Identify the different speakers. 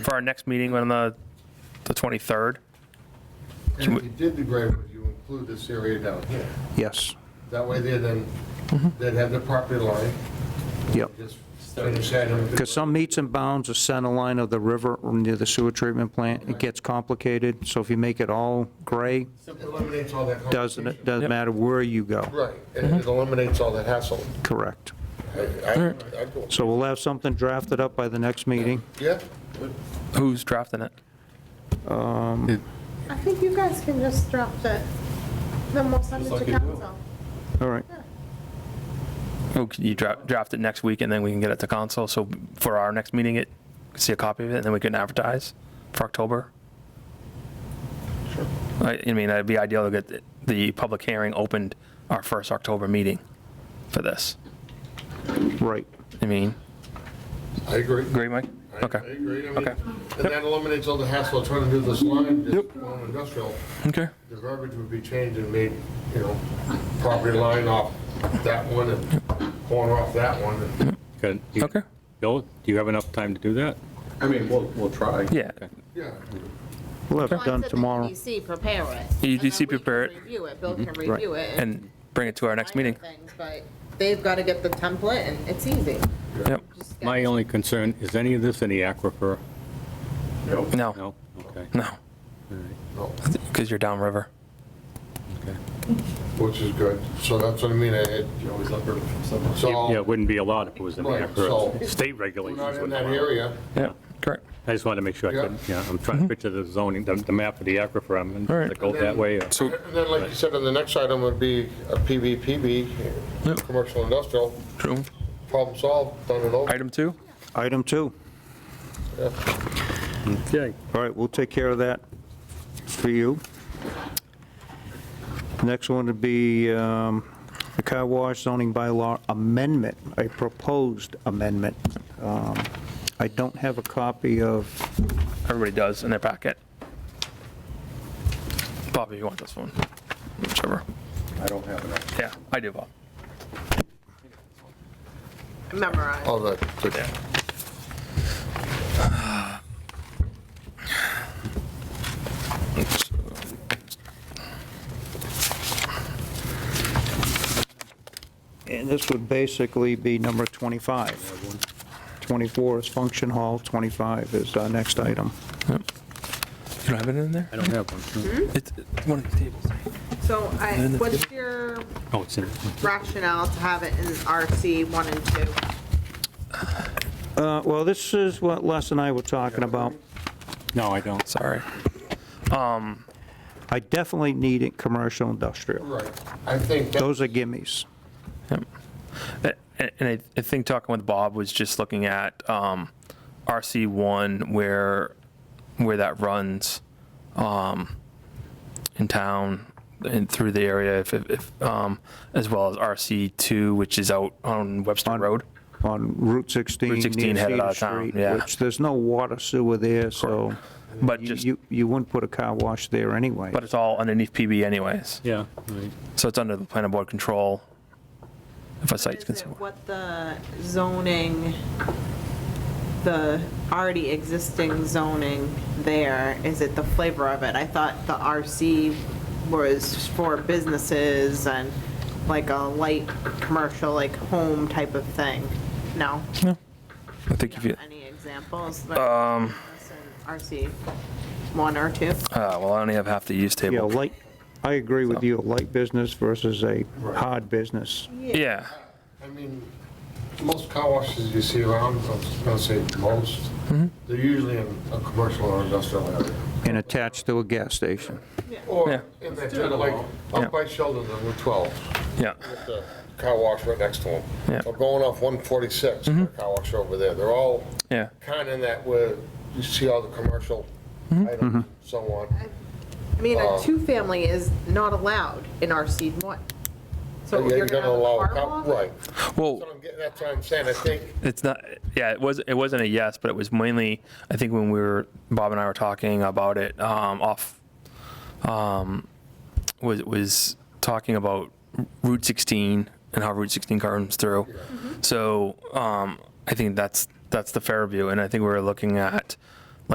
Speaker 1: for our next meeting on the, the 23rd.
Speaker 2: And if you did the gray, would you include this area down here?
Speaker 3: Yes,
Speaker 2: That way they then, they'd have the property line,
Speaker 3: yep.
Speaker 2: just finish that. and-
Speaker 3: Because some meets and bounds are center line of the river or near the sewer treatment plant. It gets complicated, so if you make it all gray,
Speaker 2: It Eliminates all that.
Speaker 3: doesn't, it
Speaker 2: complication.
Speaker 3: doesn't matter where you go.
Speaker 2: Right, and it eliminates all that hassle.
Speaker 3: Correct.
Speaker 2: I- I- I'd go-
Speaker 3: So we'll have something drafted up by the next meeting.
Speaker 2: Yeah,
Speaker 1: Who's drafting it?
Speaker 3: Um,
Speaker 4: I think you guys can just drop the, the most send it to council.
Speaker 3: All right,
Speaker 1: Oh, can you draft, draft it next week and then we can get it to council? So for our next meeting, it, see a copy of it and then we can advertise for October? I, I mean, it'd be ideal to get the- the public hearing opened our first October meeting for this.
Speaker 3: right.
Speaker 1: I mean,
Speaker 2: I agree.
Speaker 1: agree, Mike?
Speaker 2: I- I
Speaker 1: Okay,
Speaker 2: agree. I mean,
Speaker 1: Okay.
Speaker 2: And that eliminates all the hassle of trying to do this line, just going industrial.
Speaker 1: okay,
Speaker 2: The verbiage would be changed and made, you know, property line off that one and corner off that one. and-
Speaker 5: Good. You-
Speaker 1: Okay.
Speaker 5: Bill, do you have enough time to do that?
Speaker 6: I mean, we'll, we'll try.
Speaker 1: yeah.
Speaker 2: Yeah,
Speaker 3: We'll have it done tomorrow.
Speaker 7: Once the EDC prepare it.
Speaker 1: EDC
Speaker 7: and then we can
Speaker 1: prepare it. Mm-hmm.
Speaker 7: Review it, Bill can
Speaker 3: right.
Speaker 7: review it.
Speaker 1: And bring it to our next meeting.
Speaker 7: find things, But they've got to get the template and it's easy.
Speaker 1: Yep,
Speaker 7: Just get-
Speaker 5: My only concern, is any of this in the aquifer?
Speaker 1: no,
Speaker 5: No? Okay.
Speaker 1: no,
Speaker 2: no,
Speaker 1: because you're downriver.
Speaker 5: okay.
Speaker 2: which is good. So that's what I mean, I, it-
Speaker 6: You always up from somewhere.
Speaker 5: Yeah,
Speaker 2: so,
Speaker 5: it wouldn't be a lot if it was in the
Speaker 2: Right, so-
Speaker 5: aquifer. State
Speaker 2: we're
Speaker 5: regulations
Speaker 2: not in
Speaker 5: wouldn't
Speaker 2: that
Speaker 5: allow it.
Speaker 2: area.
Speaker 1: Yeah, correct.
Speaker 5: I just wanted to make sure I
Speaker 2: Yeah.
Speaker 5: could, yeah, I'm trying to picture the zoning, the- the map of the aquifer, I'm
Speaker 1: Mm-hmm. All right.
Speaker 5: going to go
Speaker 2: Mm-hmm.
Speaker 5: that way. or-
Speaker 2: And then, like you said, on the next item would be a PVPB,
Speaker 1: Yep.
Speaker 2: commercial industrial,
Speaker 1: True.
Speaker 2: problem solved, done and over.
Speaker 1: Item two?
Speaker 3: Item two.
Speaker 5: Okay.
Speaker 3: All right, we'll take care of that for you. Next one would be um, the car wash zoning bylaw amendment, a proposed amendment. Um, I don't have a copy of,
Speaker 1: Everybody does in their packet. Bob, if you want this one, whichever.
Speaker 6: I don't have enough.
Speaker 1: Yeah, I do, Bob.
Speaker 7: Memorize.
Speaker 2: All the, the-
Speaker 3: and this would basically be number 25. 24 is function hall, 25 is our next item.
Speaker 1: You don't have it in there?
Speaker 5: I don't have one.
Speaker 1: It's it's one of the tables.
Speaker 7: So I,
Speaker 1: Then it's-
Speaker 7: what's your
Speaker 5: Oh, it's in,
Speaker 7: rationale to have it in RC one and two?
Speaker 3: Uh, Well, this is what Les and I were talking about.
Speaker 5: no, I don't.
Speaker 1: Sorry.
Speaker 3: I definitely need it commercial industrial.
Speaker 2: right, I think that,
Speaker 3: Those are gimmies.
Speaker 1: A- And I I think talking with Bob was just looking at um, RC1, where, where that runs um, in town and through the area, if- if, if, um, as well as RC2, which is out on Webster
Speaker 3: On-
Speaker 1: Road.
Speaker 3: on Route 16.
Speaker 1: Route 16
Speaker 3: near
Speaker 1: headed
Speaker 3: Cedar
Speaker 1: out of town,
Speaker 3: Street,
Speaker 1: yeah.
Speaker 3: Which, there's no water sewer there, so
Speaker 1: But
Speaker 3: you-
Speaker 1: just,
Speaker 3: you, you wouldn't put a car wash there anyway.
Speaker 1: but it's all underneath PB anyways.
Speaker 5: Yeah, right.
Speaker 1: So it's under the planning board control. If a site's
Speaker 7: Is it
Speaker 1: considered,
Speaker 7: what the zoning, the already existing zoning there, is it the flavor of it? I thought the RC was for businesses and like a light commercial, like home type of thing. No?
Speaker 1: I think if you,
Speaker 7: Any examples? Um. RC one or two?
Speaker 1: ah, well, I only have half the use
Speaker 3: You know,
Speaker 1: table.
Speaker 3: light, I agree with you, a light business versus a hard business.
Speaker 1: Yeah,
Speaker 2: I mean, most car washes you see around, I'm gonna say most,
Speaker 1: Mm-hmm.
Speaker 2: they're usually in a commercial or industrial area.
Speaker 3: And attached to a gas station.
Speaker 1: Yeah.
Speaker 2: Or, in that, kind of like,
Speaker 1: Yeah.
Speaker 2: up by Sheldon on Route 12.
Speaker 1: yeah,
Speaker 2: with the car wash right next to them.
Speaker 1: Yeah.
Speaker 2: Or going off 146, the car wash over there. They're all
Speaker 1: yeah.
Speaker 2: kind of in that where you see all the commercial items and so on.
Speaker 7: I mean,
Speaker 2: Uh,
Speaker 7: a two-family is not allowed in RC one. So
Speaker 2: But yeah,
Speaker 7: you're gonna have
Speaker 2: allow
Speaker 7: a
Speaker 2: a
Speaker 7: car
Speaker 2: cou-
Speaker 7: wash?
Speaker 2: Right.
Speaker 1: Well,
Speaker 2: So I'm getting- That's what I'm saying. I think
Speaker 1: it's not, yeah, it was, it wasn't a yes, but it was mainly, I think when we were, Bob and I were talking about it, um, off, um, was, was talking about Route 16 and how Route 16 comes through. Mm-hmm. So, um, I think that's, that's the Fairview, and I think we were looking at,